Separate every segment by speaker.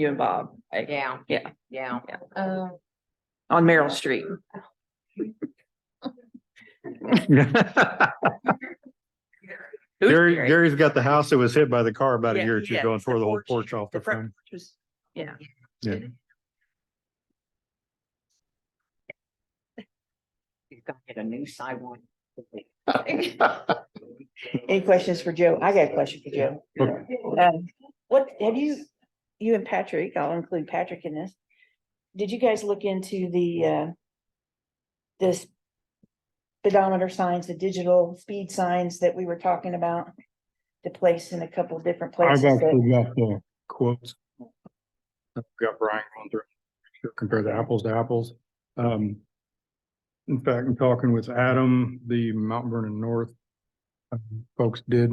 Speaker 1: you and Bob I-
Speaker 2: Yeah.
Speaker 1: Yeah.
Speaker 2: Yeah.
Speaker 1: Yeah.
Speaker 2: Uh,
Speaker 1: on Merrill Street. It was
Speaker 3: Gary,
Speaker 1: scary.
Speaker 3: Gary's got the house that was hit by the car about a
Speaker 1: Yeah,
Speaker 3: year or two
Speaker 1: yeah,
Speaker 3: ago and tore
Speaker 1: the
Speaker 3: the whole
Speaker 1: porch,
Speaker 3: porch off
Speaker 1: the
Speaker 3: the
Speaker 1: front
Speaker 3: front.
Speaker 1: It was- Yeah.
Speaker 3: Yeah.
Speaker 2: he's gonna get a new sidewalk.
Speaker 4: Any questions for Joe? I got a question for Joe.
Speaker 3: Okay.
Speaker 4: Um, what, have you, you and Patrick, I'll include Patrick in this. Did you guys look into the, uh, this speedometer signs, the digital speed signs that we were talking about? To place in a couple of different places.
Speaker 3: I've
Speaker 4: that-
Speaker 3: actually got the quotes. I've Got Brian going through, sure, compare the apples to apples. Um, in fact, I'm talking with Adam, the Mount Vernon North um, folks did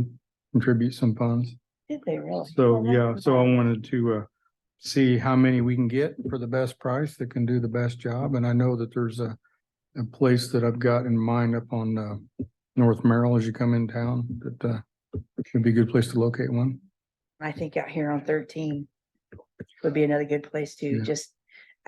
Speaker 3: contribute some funds.
Speaker 4: Did they really?
Speaker 3: So, yeah, so I wanted to uh, see how many we can get for the best price that can do the best job. And I know that there's a, a place that I've got in mind up on uh, North Merrill as you come in town, that uh, would be a good place to locate one.
Speaker 4: I think out here on thirteen would be another good place to
Speaker 3: Yeah.
Speaker 4: just,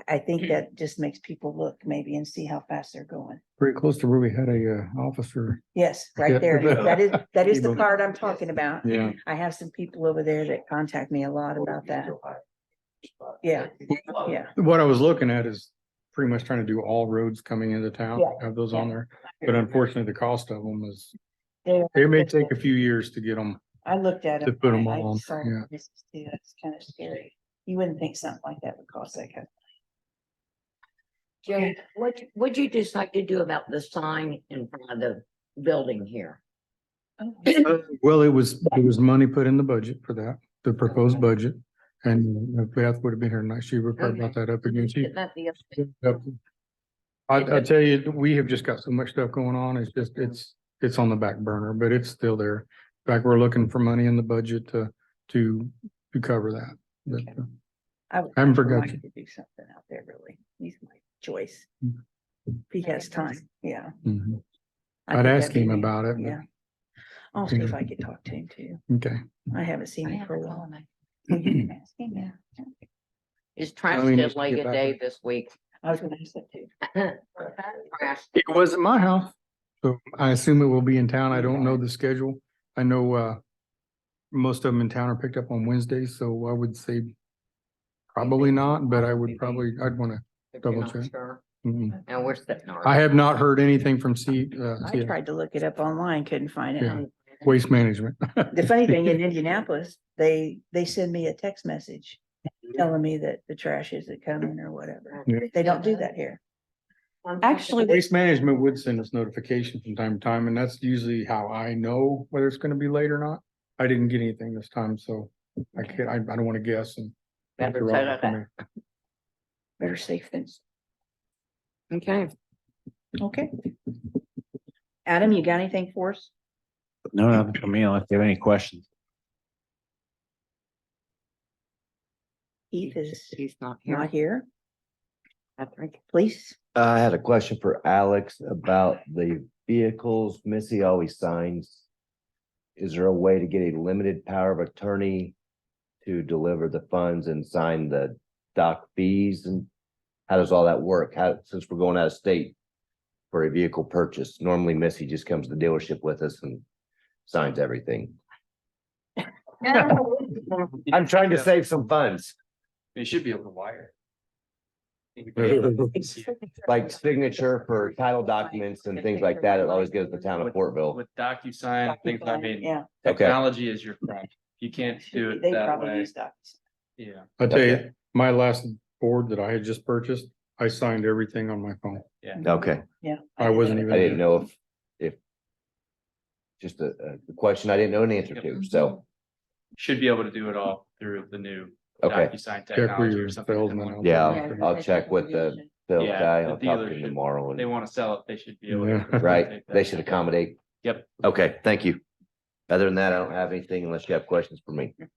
Speaker 4: I, I think that just makes people look maybe and see how fast they're going.
Speaker 3: Pretty close to where we had a uh, officer.
Speaker 4: Yes,
Speaker 3: Yeah.
Speaker 4: right there. That is, that is the
Speaker 3: Evil.
Speaker 4: part I'm talking about.
Speaker 3: Yeah.
Speaker 4: I have some people over there that contact me a lot about that. Yeah, yeah.
Speaker 3: What I was looking at is pretty much trying to do all roads coming into town,
Speaker 4: Yeah.
Speaker 3: have those on there. But
Speaker 4: They-
Speaker 3: unfortunately, the cost of them is, it may take a few years to get them.
Speaker 4: I looked at it.
Speaker 3: to put 'em all on, yeah.
Speaker 4: It's kind of scary. You wouldn't think something like that would cost that kind.
Speaker 2: Jay, what, what'd you decide to do about the sign in front of the building here?
Speaker 4: of-
Speaker 3: Well, it was, it was money put in the budget for that, the proposed budget. And if Beth would have been here tonight, she would have brought that up again. She.
Speaker 2: Isn't that the other thing?
Speaker 3: I, I tell you, we have just got so much stuff going on. It's just, it's, it's on the back burner, but it's still there. In fact, we're looking for money in the budget to, to, to cover that. But, uh,
Speaker 4: I would
Speaker 3: I haven't
Speaker 4: like for
Speaker 3: forgot
Speaker 4: Mike
Speaker 3: you.
Speaker 4: To do something out there, really. He's my choice. If
Speaker 3: Mm.
Speaker 4: he has time, yeah.
Speaker 3: mhm.
Speaker 4: I
Speaker 3: I'd
Speaker 4: think
Speaker 3: ask
Speaker 4: that'd be
Speaker 3: him
Speaker 4: neat.
Speaker 3: about it. but-
Speaker 4: Yeah. I'll see if I could talk to him too.
Speaker 3: Okay.
Speaker 4: I haven't seen
Speaker 2: I
Speaker 4: him for a
Speaker 2: haven't
Speaker 4: while.
Speaker 2: gone there.
Speaker 4: Will you ask him? Yeah.
Speaker 2: Is
Speaker 3: I
Speaker 2: trash
Speaker 3: mean,
Speaker 2: did
Speaker 3: just
Speaker 2: like
Speaker 3: get
Speaker 2: a
Speaker 3: back
Speaker 2: day
Speaker 3: in-
Speaker 2: this week?
Speaker 4: I was gonna ask that too.
Speaker 2: Trash.
Speaker 3: It wasn't my house, so I assume it will be in town. I don't know the schedule. I know, uh, most of them in town are picked up on Wednesdays, so I would say probably not, but I would probably, I'd wanna,
Speaker 2: if you're
Speaker 3: Double
Speaker 2: not
Speaker 3: check.
Speaker 2: sure.
Speaker 3: mm.
Speaker 2: And we're sitting.
Speaker 3: I have not heard anything from C, uh,
Speaker 4: I
Speaker 3: C-
Speaker 4: tried to look it up online, couldn't find
Speaker 3: Yeah.
Speaker 4: it.
Speaker 3: Waste Management.
Speaker 4: The funny thing in Indianapolis, they, they send me a text message telling me that the trash isn't coming or whatever. They don't do that here. Actually, they-
Speaker 3: Waste Management would send us notification from time to time, and that's usually how I know whether it's gonna be late or not. I didn't get anything this time, so I can't, I, I don't wanna guess and.
Speaker 2: Better set it up.
Speaker 4: Better safe than,
Speaker 2: Okay.
Speaker 4: okay. Adam, you got anything for us?
Speaker 5: No, nothing for me unless you have any questions.
Speaker 4: Keith is
Speaker 2: He's not
Speaker 4: not
Speaker 2: here.
Speaker 4: here.
Speaker 2: I think.
Speaker 4: Please,
Speaker 6: I had a question for Alex about the vehicles. Missy always signs. Is there a way to get a limited power of attorney to deliver the funds and sign the doc fees and? How does all that work? How, since we're going out of state for a vehicle purchase, normally Missy just comes to the dealership with us and signs everything. I'm trying to save some funds,
Speaker 7: They should be able to wire.
Speaker 6: like signature for title documents and things like that. It always goes to the town of Portville.
Speaker 7: With DocuSign, things I mean,
Speaker 4: yeah.
Speaker 6: Okay.
Speaker 7: technology is your friend. You can't do it
Speaker 4: They
Speaker 7: that
Speaker 4: probably
Speaker 7: way.
Speaker 4: use docs.
Speaker 7: Yeah,
Speaker 3: I tell
Speaker 6: Okay.
Speaker 3: you, my last board that I had just purchased, I signed everything on my phone.
Speaker 6: Okay.
Speaker 4: Yeah.
Speaker 3: I wasn't even.
Speaker 6: I didn't know if, if. Just a, a question I didn't know an answer to, so,
Speaker 7: should be able to do it all through the new
Speaker 6: okay,
Speaker 7: DocuSign
Speaker 3: Check where
Speaker 7: technology
Speaker 3: your
Speaker 7: or something.
Speaker 3: salesman.
Speaker 7: like
Speaker 3: out
Speaker 7: that.
Speaker 3: there.
Speaker 6: Yeah. I'll check with the- Bill
Speaker 7: Yeah,
Speaker 6: guy,
Speaker 7: the
Speaker 6: I'll talk to
Speaker 7: dealership,
Speaker 6: him tomorrow
Speaker 7: If They
Speaker 6: and,
Speaker 7: want to sell it, they should be able.
Speaker 3: Yeah.
Speaker 7: to
Speaker 6: right,
Speaker 7: take that.
Speaker 6: they should accommodate.
Speaker 7: Yep.
Speaker 6: Okay, thank you. Other than that, I don't have anything unless you have questions for me.
Speaker 4: Missy,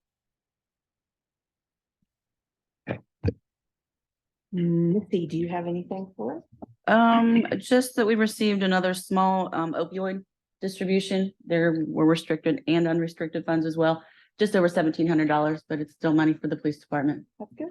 Speaker 4: Mm, do you have anything for us?
Speaker 8: Um, just that we received another small um opioid distribution. There were restricted and unrestricted funds as well. Just over seventeen hundred dollars, but it's still money for the police department.
Speaker 4: That's good.